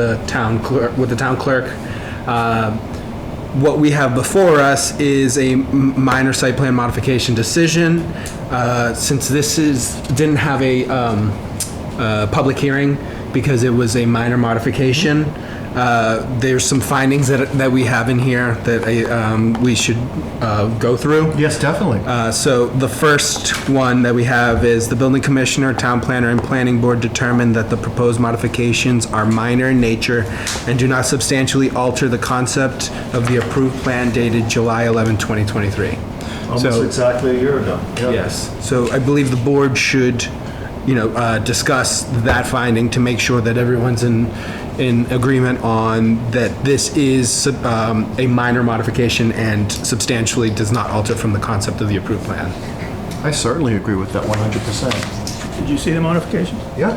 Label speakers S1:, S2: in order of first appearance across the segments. S1: the town clerk, with the town clerk. Uh, What we have before us is a m- minor site plan modification decision. Uh, Since this is, didn't have a um, uh, public hearing because it was a minor modification, uh, there's some findings that, that we have in here that I, um, we should uh, go through.
S2: Yes, definitely.
S1: Uh, So the first one that we have is the building commissioner, town planner, and planning board determined that the proposed modifications are minor in nature and do not substantially alter the concept of the approved plan dated July 11, 2023.
S2: Almost
S1: So-
S2: exactly a year ago.
S1: Yes. So I believe the board should, you know, uh, discuss that finding to make sure that everyone's in, in agreement on that this is um, a minor modification and substantially does not alter from the concept of the approved plan.
S2: I certainly agree with that 100%.
S3: Did you see the modifications?
S2: Yeah.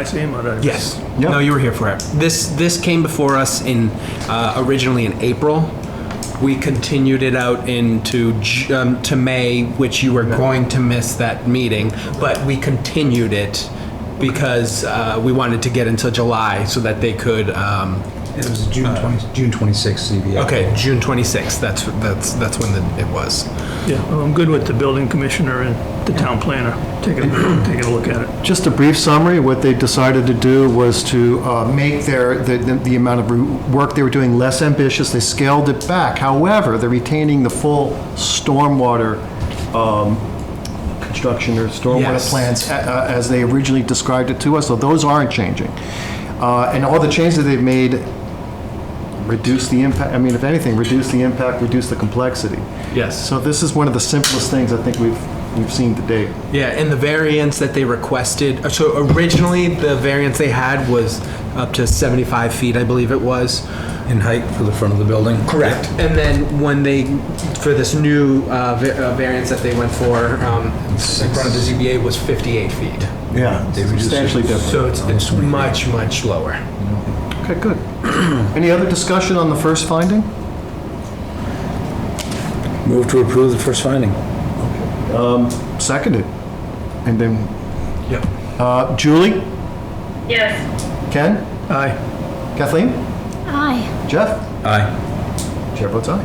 S3: I see them already.
S1: Yes.
S2: Yeah.
S1: No, you were here for it. This, this came before us in, uh, originally in April. We continued it out into, J- um, to May, which you were going to miss that meeting, but we continued it because, uh, we wanted to get until July so that they could, um,
S4: It was June 20, June 26th, CBA.
S1: okay, June 26th, that's, that's, that's when the- it was.
S3: Yeah, well, I'm good with the building commissioner and the town planner taking, taking a look at it.
S2: Just a brief summary, what they decided to do was to uh, make their, the- the the amount of re- work they were doing less ambitious. They scaled it back. However, they're retaining the full stormwater um, construction or stormwater
S1: Yes.
S2: plans a- a- as they originally described it to us, so those aren't changing. Uh, And all the changes that they've made reduce the impact, I mean, if anything, reduce the impact, reduce the complexity.
S1: Yes.
S2: So this is one of the simplest things I think we've, we've seen to date.
S1: Yeah, and the variance that they requested, uh, so originally, the variance they had was up to 75 feet, I believe it was.
S4: In height for the front of the building?
S1: Correct. And then when they, for this new uh, va- uh, variance that they went for, um, in front of the ZBA was 58 feet.
S2: Yeah.
S4: They reduced it.
S2: Substantially different.
S1: So it's, it's much, much lower.
S2: Okay, good. Any other discussion on the first finding?
S4: Move to approve the first finding.
S2: Seconded. And then,
S1: Yep.
S2: uh, Julie?
S5: Yes.
S2: Ken?
S3: Aye.
S2: Kathleen?
S5: Aye.
S2: Jeff?
S4: Aye.
S2: Chair votes aye.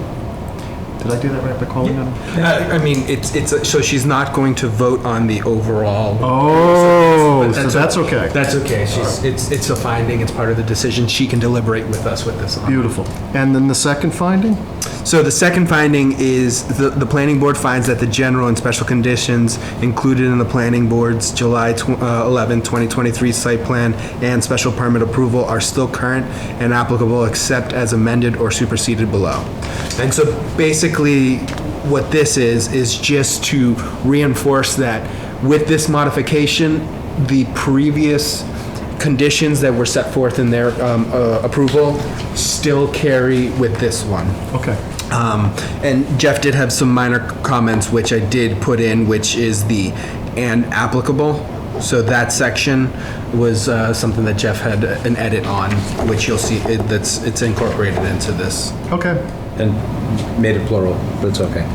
S2: Did I do that right by calling them?
S1: I mean, it's, it's, a- so she's not going to vote on the overall.
S2: Oh,
S1: But
S2: so that's okay.
S1: That's okay. She's, it's, it's a finding, it's part of the decision. She can deliberate with us with this on.
S2: Beautiful. And then the second finding?
S1: So the second finding is the, the planning board finds that the general and special conditions included in the planning board's July tw- uh, 11, 2023 site plan and special permit approval are still current and applicable except as amended or superseded below. And so basically, what this is, is just to reinforce that with this modification, the previous conditions that were set forth in their um, uh, approval still carry with this one.
S2: Okay.
S1: Um, And Jeff did have some minor comments, which I did put in, which is the "and applicable." So that section was uh, something that Jeff had an edit on, which you'll see, it- that's, it's incorporated into this.
S2: Okay.
S4: And made it plural, but it's okay.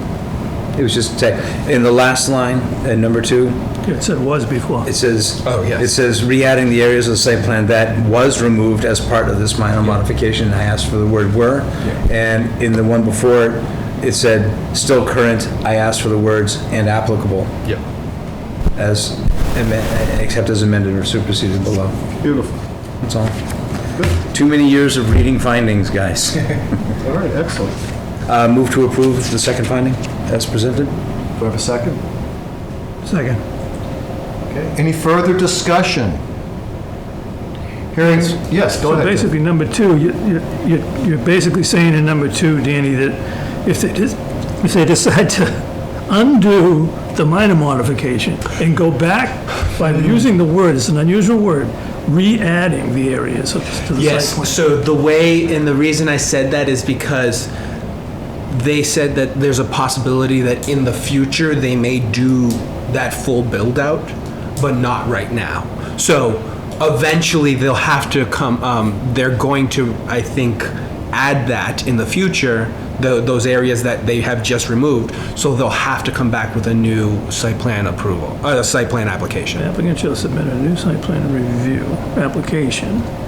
S4: It was just, tech- in the last line, uh, number two,
S3: It said was before.
S4: it says.
S1: Oh, yes.
S4: It says, re-adding the areas of the site plan that was removed as part of this minor modification. I asked for the word were. And in the one before, it, it said, still current. I asked for the words and applicable
S1: Yep.
S4: as, amen- except as amended or superseded below.
S2: Beautiful.
S4: That's all. Too many years of reading findings, guys.
S2: All right, excellent.
S4: Uh, Move to approve the second finding as presented?
S2: Do I have a second?
S3: Second.
S2: Okay. Any further discussion? Hearing, yes, go
S3: So
S2: ahead. Jeff.
S3: basically, number two, you- you- you- you're basically saying in number two, Danny, that if they, dis- if they decide to undo the minor modification and go back by using the word, it's an unusual word, re-adding the areas of- to the site plan.
S1: Yes, so the way, and the reason I said that is because they said that there's a possibility that in the future, they may do that full build-out, but not right now. So eventually, they'll have to come, um, they're going to, I think, add that in the future, tho- those areas that they have just removed. So they'll have to come back with a new site plan approval, uh, a site plan application.
S3: Applicant shall submit a new site plan review application